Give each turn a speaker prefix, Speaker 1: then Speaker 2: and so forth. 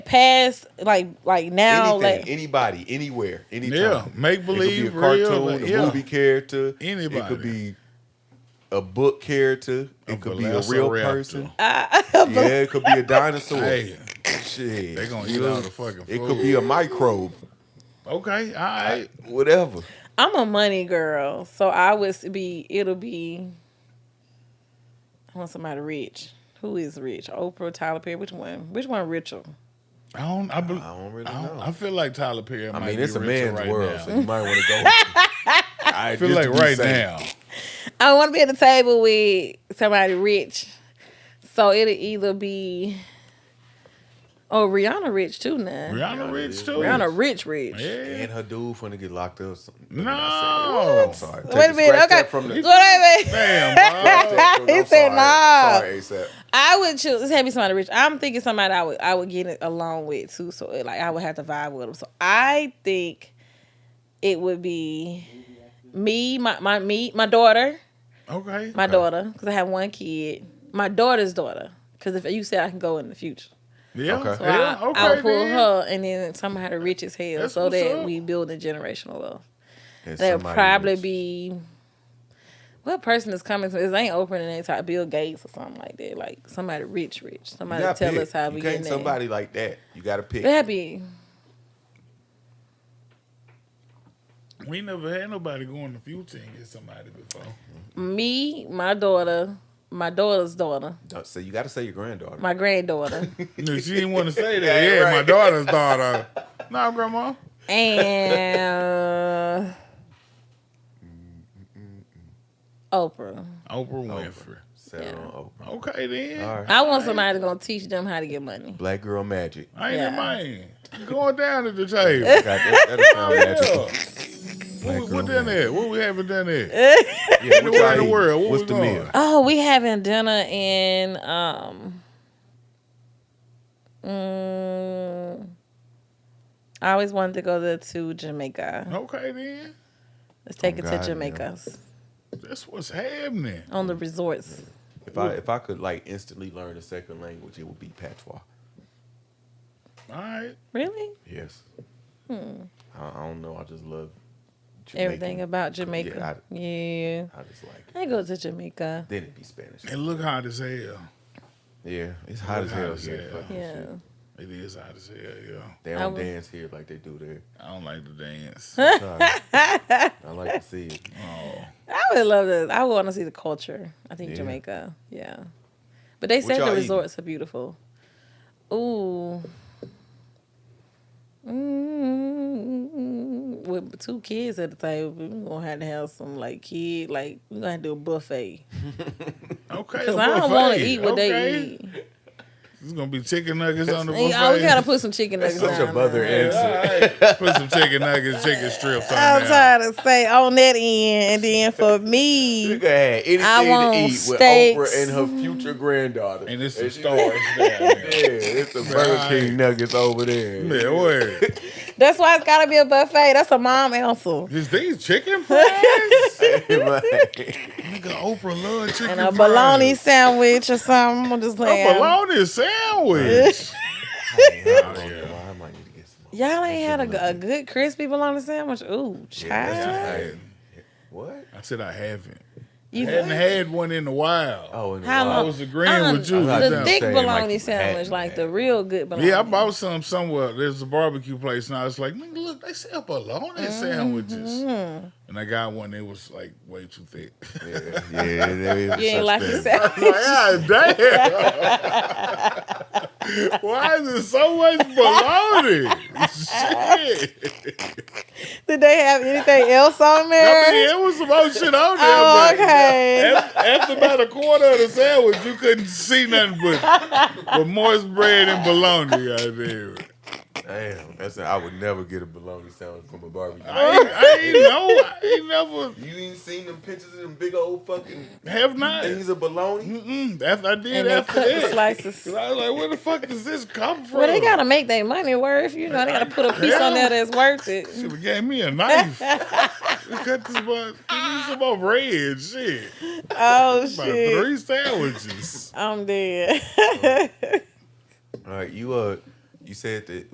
Speaker 1: past, like like now,
Speaker 2: Anything,
Speaker 1: like
Speaker 2: anybody, anywhere, anytime.
Speaker 3: Yeah, make
Speaker 2: It could
Speaker 3: believe,
Speaker 2: be a
Speaker 3: real,
Speaker 2: cartoon,
Speaker 3: like,
Speaker 2: a
Speaker 3: yeah.
Speaker 2: movie character. It
Speaker 3: Anybody.
Speaker 2: could be a book character. It could be a real
Speaker 3: velociraptor.
Speaker 2: person.
Speaker 1: Uh,
Speaker 2: yeah, it could be a dinosaur.
Speaker 3: Hey,
Speaker 2: Shit,
Speaker 3: they gonna
Speaker 2: you
Speaker 3: eat
Speaker 2: know?
Speaker 3: all the fucking
Speaker 2: It could
Speaker 3: food.
Speaker 2: be a microbe.
Speaker 3: okay, all right.
Speaker 2: Whatever.
Speaker 1: I'm a money girl, so I would be. It'll be. I want somebody rich. Who is rich? Oprah, Tyler Perry. Which one? Which one richer?
Speaker 3: I don't. I, bel-
Speaker 2: I don't really
Speaker 3: I,
Speaker 2: know.
Speaker 3: I feel like Tyler Perry.
Speaker 2: I
Speaker 3: might
Speaker 2: mean,
Speaker 3: be
Speaker 2: it's a
Speaker 3: richer
Speaker 2: man's
Speaker 3: right
Speaker 2: world,
Speaker 3: Now.
Speaker 2: so you might want to go. with it.
Speaker 3: I feel
Speaker 2: just
Speaker 3: like
Speaker 2: to be
Speaker 3: right
Speaker 2: safe.
Speaker 3: now.
Speaker 1: I want to be at the table with somebody rich, so it'll either be. Oh, Rihanna rich too now. Rihanna,
Speaker 3: Rihanna Rich too.
Speaker 1: rich, rich.
Speaker 3: Yeah.
Speaker 2: and her dude finna get locked up. or something.
Speaker 3: No.
Speaker 2: I'm sorry. Take
Speaker 1: Wait a
Speaker 2: the
Speaker 1: minute.
Speaker 2: scratch
Speaker 1: Okay.
Speaker 2: that From the,
Speaker 1: Wait a minute.
Speaker 3: Damn, bro.
Speaker 2: I'm
Speaker 1: He said,
Speaker 2: sorry.
Speaker 1: "Nah."
Speaker 2: Sorry, ASAP.
Speaker 1: I would choose. It's had to be somebody rich. I'm thinking somebody I would I would get it along with too. So it, like I would have to vibe with them. So I think it would be me, my my me, my daughter,
Speaker 3: Okay.
Speaker 1: my daughter, because I have one kid, my daughter's daughter. Because if you said I can go in the future,
Speaker 3: Yeah.
Speaker 2: Okay.
Speaker 1: so
Speaker 3: yeah,
Speaker 1: I,
Speaker 3: okay
Speaker 1: I would pull
Speaker 3: then.
Speaker 1: her, and then somehow the rich as hell,
Speaker 3: That's
Speaker 1: so
Speaker 3: what's
Speaker 1: that
Speaker 3: up.
Speaker 1: we build a generational wealth.
Speaker 2: And
Speaker 1: That would
Speaker 2: somebody
Speaker 1: probably
Speaker 2: rich.
Speaker 1: be what person is coming to this ain't Oprah and they type Bill Gates or something like that. Like somebody rich, rich.
Speaker 2: You
Speaker 1: Somebody
Speaker 2: gotta
Speaker 1: tell
Speaker 2: pick.
Speaker 1: us how
Speaker 2: you
Speaker 1: we
Speaker 2: can't
Speaker 1: get there.
Speaker 2: somebody like that. You got to pick.
Speaker 1: That'd be
Speaker 3: We never had nobody go in the future and get somebody before.
Speaker 1: me, my daughter, my daughter's daughter,
Speaker 2: Don't say you got to say your granddaughter.
Speaker 1: my granddaughter,
Speaker 3: No, she didn't want to say that.
Speaker 2: Yeah,
Speaker 3: Yeah, my
Speaker 2: right.
Speaker 3: daughter's daughter. No, grandma.
Speaker 2: Mm,
Speaker 1: and Oprah.
Speaker 3: Oprah Winfrey.
Speaker 2: Settle
Speaker 1: Yeah.
Speaker 2: on Oprah.
Speaker 3: Okay then.
Speaker 2: oh, All right.
Speaker 1: I want somebody that's gonna teach them how to get money.
Speaker 2: Black girl magic.
Speaker 3: I ain't
Speaker 1: Yeah.
Speaker 3: a man. You Going down at the table.
Speaker 2: Got that, that'll sound magical.
Speaker 3: yeah. What, we- what done there? What we haven't done
Speaker 1: Eh.
Speaker 3: there?
Speaker 2: Yeah, what
Speaker 3: Anywhere
Speaker 2: y'all
Speaker 3: in the
Speaker 2: eating?
Speaker 3: world, where
Speaker 2: What's
Speaker 3: we
Speaker 2: the
Speaker 3: going?
Speaker 2: meal?
Speaker 1: Oh, we having dinner in um mm, I always wanted to go there to Jamaica.
Speaker 3: Okay then.
Speaker 1: Let's take it to
Speaker 2: Oh, God,
Speaker 1: Jamaica's
Speaker 3: That's what's happening.
Speaker 1: on the resorts.
Speaker 2: If I if I could like instantly learn a second language, it would be patois.
Speaker 3: All right.
Speaker 1: Really?
Speaker 2: Yes. I, I don't know. I just love Jamaican.
Speaker 1: Hmm. Everything about Jamaica.
Speaker 2: I-
Speaker 1: Yeah.
Speaker 2: I just like. It.
Speaker 1: I go to Jamaica.
Speaker 2: Then it'd be Spanish.
Speaker 3: And look hot as hell.
Speaker 2: Yeah, it's hot
Speaker 3: Look
Speaker 2: as hell
Speaker 3: hot as
Speaker 2: here.
Speaker 3: hell.
Speaker 2: Fucking
Speaker 1: Yeah.
Speaker 2: shit.
Speaker 3: It is hot as hell, yeah.
Speaker 2: They
Speaker 1: I
Speaker 2: don't
Speaker 1: would-
Speaker 2: dance here like they do there.
Speaker 3: I don't like to dance.
Speaker 2: Sorry. I like to see it.
Speaker 3: oh.
Speaker 1: I would love this. I would want to see the culture. I think
Speaker 2: Yeah.
Speaker 1: Jamaica. Yeah. But they
Speaker 2: What
Speaker 1: said
Speaker 2: y'all
Speaker 1: the
Speaker 2: eating?
Speaker 1: resorts are beautiful. Ooh. Mm, with two kids at the table, we're gonna have to have some like kid, like we're gonna have to do a buffet.
Speaker 3: Okay.
Speaker 1: Cause I don't want to
Speaker 3: buffet.
Speaker 1: eat what
Speaker 3: Okay.
Speaker 1: they eat.
Speaker 3: It's gonna be chicken nuggets on the buffet.
Speaker 1: Hey, oh, we gotta put some chicken nuggets.
Speaker 2: Such
Speaker 1: down
Speaker 2: a mother
Speaker 1: there.
Speaker 2: answer.
Speaker 3: Put some chicken nuggets, chicken strips on
Speaker 1: I'm
Speaker 3: there.
Speaker 1: trying to say on that end, and then for me,
Speaker 2: You could have anything
Speaker 1: I want
Speaker 2: to eat with
Speaker 1: steaks.
Speaker 2: Oprah and her future granddaughter.
Speaker 3: And it's some
Speaker 2: It's-
Speaker 3: stars down there.
Speaker 2: Yeah, it's the Burger King nuggets over there.
Speaker 3: Man, wait.
Speaker 1: that's why it's gotta be a buffet. That's a mom answer.
Speaker 3: Is these chicken fries?
Speaker 2: Like,
Speaker 3: Nigga, Oprah love chicken
Speaker 1: and a
Speaker 3: fries.
Speaker 1: bologna sandwich or something. I'm just
Speaker 3: A
Speaker 1: playing.
Speaker 3: bologna sandwich.
Speaker 2: I don't know why I might need to get some.
Speaker 1: Y'all ain't had a, a good crispy bologna sandwich. Ooh,
Speaker 2: that's
Speaker 1: child.
Speaker 2: right.
Speaker 3: I,
Speaker 2: What?
Speaker 3: I said I haven't.
Speaker 1: You-
Speaker 3: Hadn't had one in a while.
Speaker 2: Oh, in the
Speaker 1: How
Speaker 3: I
Speaker 2: wild.
Speaker 1: long?
Speaker 3: was agreeing
Speaker 1: Uh-uh.
Speaker 3: with you.
Speaker 2: I was
Speaker 1: The
Speaker 2: about to
Speaker 1: thick
Speaker 2: say, like,
Speaker 1: bologna
Speaker 2: you
Speaker 1: sandwich,
Speaker 2: had-
Speaker 1: like the real good bologna.
Speaker 3: Yeah, I bought some somewhere. There's a barbecue place, and I was like, "Nigga, look, they sell bologna sandwiches."
Speaker 1: Mm-hmm.
Speaker 3: And I got one. It was like way too thick.
Speaker 2: Yeah, yeah, there is
Speaker 1: You ain't like
Speaker 2: such thing.
Speaker 1: your sandwich.
Speaker 3: God damn! Why is it so much bologna? Shit!
Speaker 1: Did they have anything else on
Speaker 3: I
Speaker 1: there?
Speaker 3: mean, it was some other shit on there,
Speaker 1: Oh,
Speaker 3: but
Speaker 1: okay.
Speaker 3: af- after about a quarter of the sandwich, you couldn't see nothing but but moist bread and bologna. out there.
Speaker 2: Damn, that's a, I would never get a bologna sandwich from a barbecue.
Speaker 3: I ain't, I ain't know. I ain't never.
Speaker 2: you ain't seen them pictures of them big old fucking
Speaker 3: Have not.
Speaker 2: things of bologna?
Speaker 3: Mm-mm, that's I did
Speaker 1: And they
Speaker 3: after
Speaker 1: cut the
Speaker 3: that.
Speaker 1: slices.
Speaker 3: 'Cause I was like, where the fuck does this come from?
Speaker 1: Well, they gotta make their money worth. You know, they gotta put a piece on there that's worth it.
Speaker 3: Should have gave me a knife. Cut this much. Give me some more bread. Shit.
Speaker 1: Oh
Speaker 3: About
Speaker 1: shit,
Speaker 3: three sandwiches.
Speaker 1: I'm dead.
Speaker 2: All right, you uh, you said that